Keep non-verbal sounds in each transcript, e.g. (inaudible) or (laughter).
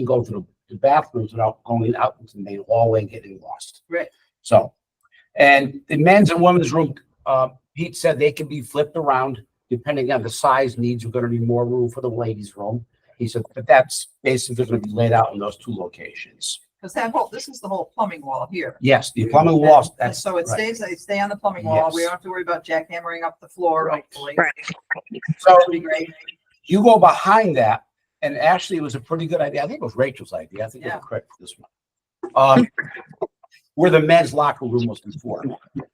can go to the- the bathrooms without going out into the main hallway and getting lost. Right. So, and the men's and women's room, uh, Pete said they can be flipped around depending on the size needs. We're gonna need more room for the ladies' room. He said, but that's basically gonna be laid out in those two locations. Because that whole, this is the whole plumbing wall here. Yes, the plumbing walls, And- and that's. So it right. stays, it stay on the plumbing wall. We Yes. don't have to worry about jackhammering up the floor, Right. hopefully. Right. So That'd be great. you go behind that, and actually it was a pretty good idea. I think it was Rachel's idea. I think you're Yeah. correct for this one. Um, (laughs) where the men's locker room was before,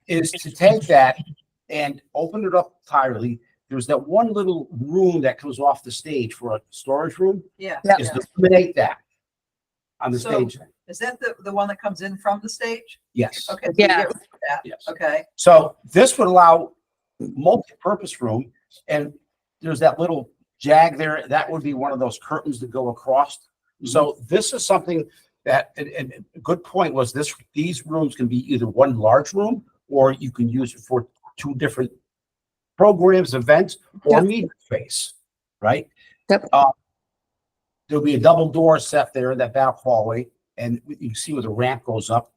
is to take that and open it up entirely. There's that one little room that comes off the stage for a storage room, Yeah. Yeah. is to eliminate that on the So- stage. Is that the, the one that comes in from the stage? Yes, Okay. so you Yeah. get rid of that. yes. Okay, So this would allow multi-purpose room and there's that little jag there. That would be one of those curtains that go across. So this is something that, and, and a good point was this, these rooms can be either one large room or you can use it for two different programs, events, or Yep. meeting space, right? Yep. Uh, There'll be a double door set there in that back hallway and you can see where the ramp goes up.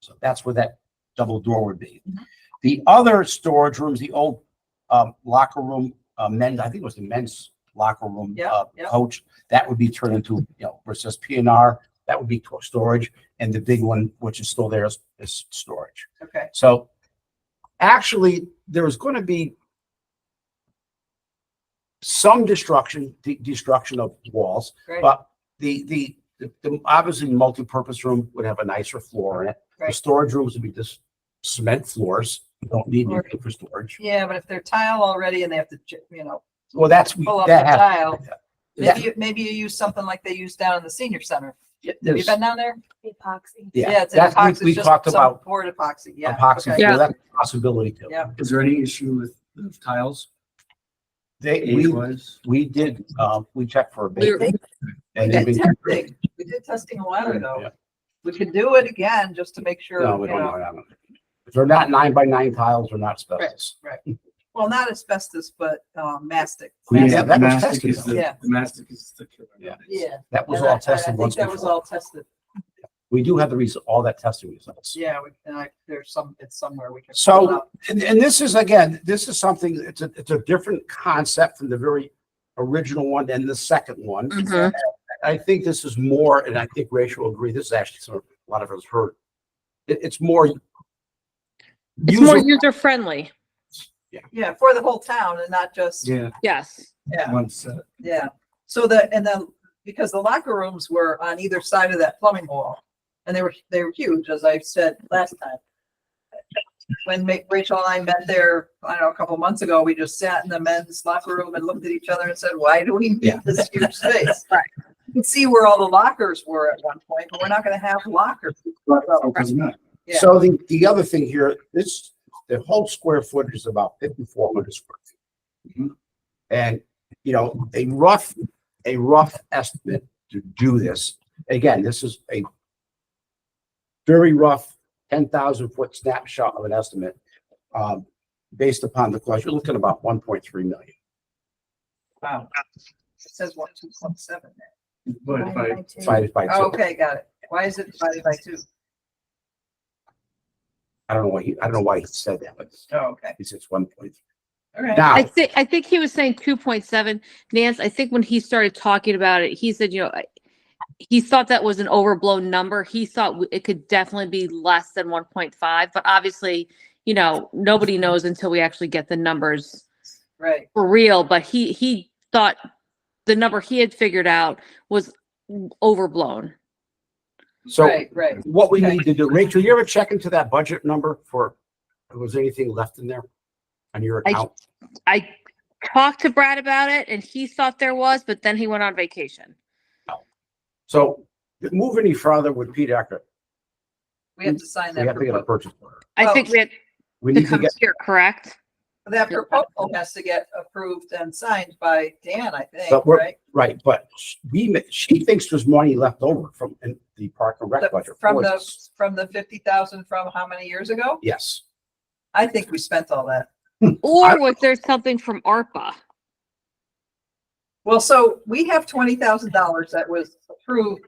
So that's where that double door would be. Mm-hmm. The other storage rooms, the old um, locker room, uh, men's, I think it was the men's locker room Yeah, uh, yeah. coach, that would be turned into, you know, versus P and R, that would be to- storage. And the big one, which is still there, is, is storage. okay. So actually, there is going to be some destruction, de- destruction of walls. Great. But the, the, the, the- obviously, the multipurpose room would have a nicer floor in it. The Right. storage rooms would be just cement floors. You don't need Or- anything for storage. Yeah, but if they're tile already and they have to, j- you know, Well, that's, we- pull up the that has. tile, that- maybe, you- maybe you use something like they use down in the senior center. Have you there's- been down there? Epoxy. Yeah, it's an that's, epoxy, we- it's we just talked some about Board epoxy, yeah. epoxy, okay. Yeah. well, that's a possibility too. Yeah. Is there any issue with the tiles They, age we, wise? we did, uh, we checked for a We were- bit. We And they've did been, testing, we did testing a while Yeah. ago. We could do it again, just to make sure, no, we you don't know, know. that one. If they're not nine by nine tiles, they're not asbestos. well, not asbestos, but, um, mastic. Yeah, Mastic, that was mastic tested, is the, though. Yeah. the mastic is the killer. Yeah. nowadays. Yeah. That was and I- all and I tested think once That was before. all tested, We do have the reason, all that testing results. yeah, we- and I, there's some, it's somewhere we can. So- pull it up. And, and this is, again, this is something, it's a, it's a different concept from the very original one and the second one. Mm-hmm. Mhm. I think this is more, and I think Rachel will agree, this is actually sort of, a lot of us heard. It, it's more. It's more user- user friendly. Yeah, for the whole town and not just, Yeah, Yes. yeah, one set. yeah. So the, and then, because the locker rooms were on either side of that plumbing wall. And they were, they were huge, as I said last time. When Ma- Rachel and I met there, I don't know, a couple months ago, we just sat in the men's locker room and looked at each other and said, why do we Yeah. need this (laughs) huge space? Right. You can see where all the lockers were at one point, but we're not gonna have lockers. Opens up. Yeah. So the, the other thing here, this, the whole square footage is about fifty-four hundred square Mm-hmm. feet. Mhm. And, you know, a rough, a rough estimate to do this, again, this is a very rough ten thousand foot snapshot of an estimate, um, based upon the cost, you're looking at about one point three million. Wow. It says one, two, one, seven. there. But if I, Divided by Oh, two, Okay, got it. Why is it divided by two? I don't know why he, I don't know why he said that, but Oh, okay. he says one point three. All right. Now, I think, I think he was saying two point seven. Nance, I think when he started talking about it, he said, you know, I- he thought that was an overblown number. He thought w- it could definitely be less than one point five, but obviously, you know, nobody knows until we actually get the numbers Right. for real, but he, he thought the number he had figured out was overblown. so Right, right. what we Okay. need to do, Rachel, you ever check into that budget number for, was there anything left in there on your I- account? I talked to Brad about it and he thought there was, but then he went on vacation. So to move any further with Pete Eckert, We have to sign we that have to get a proposal. purchase order. I think Oh. we had We to need to come get, here, correct? That proposal has to get approved and signed by Dan, I think, But we're- right? right, but sh- we, ma- she thinks there's money left over from in the park and The- rec budget. From for the, this. from the fifty thousand from how many years ago? Yes, I think we spent all that. Or was there something from ARPA? Well, so we have twenty thousand dollars that was approved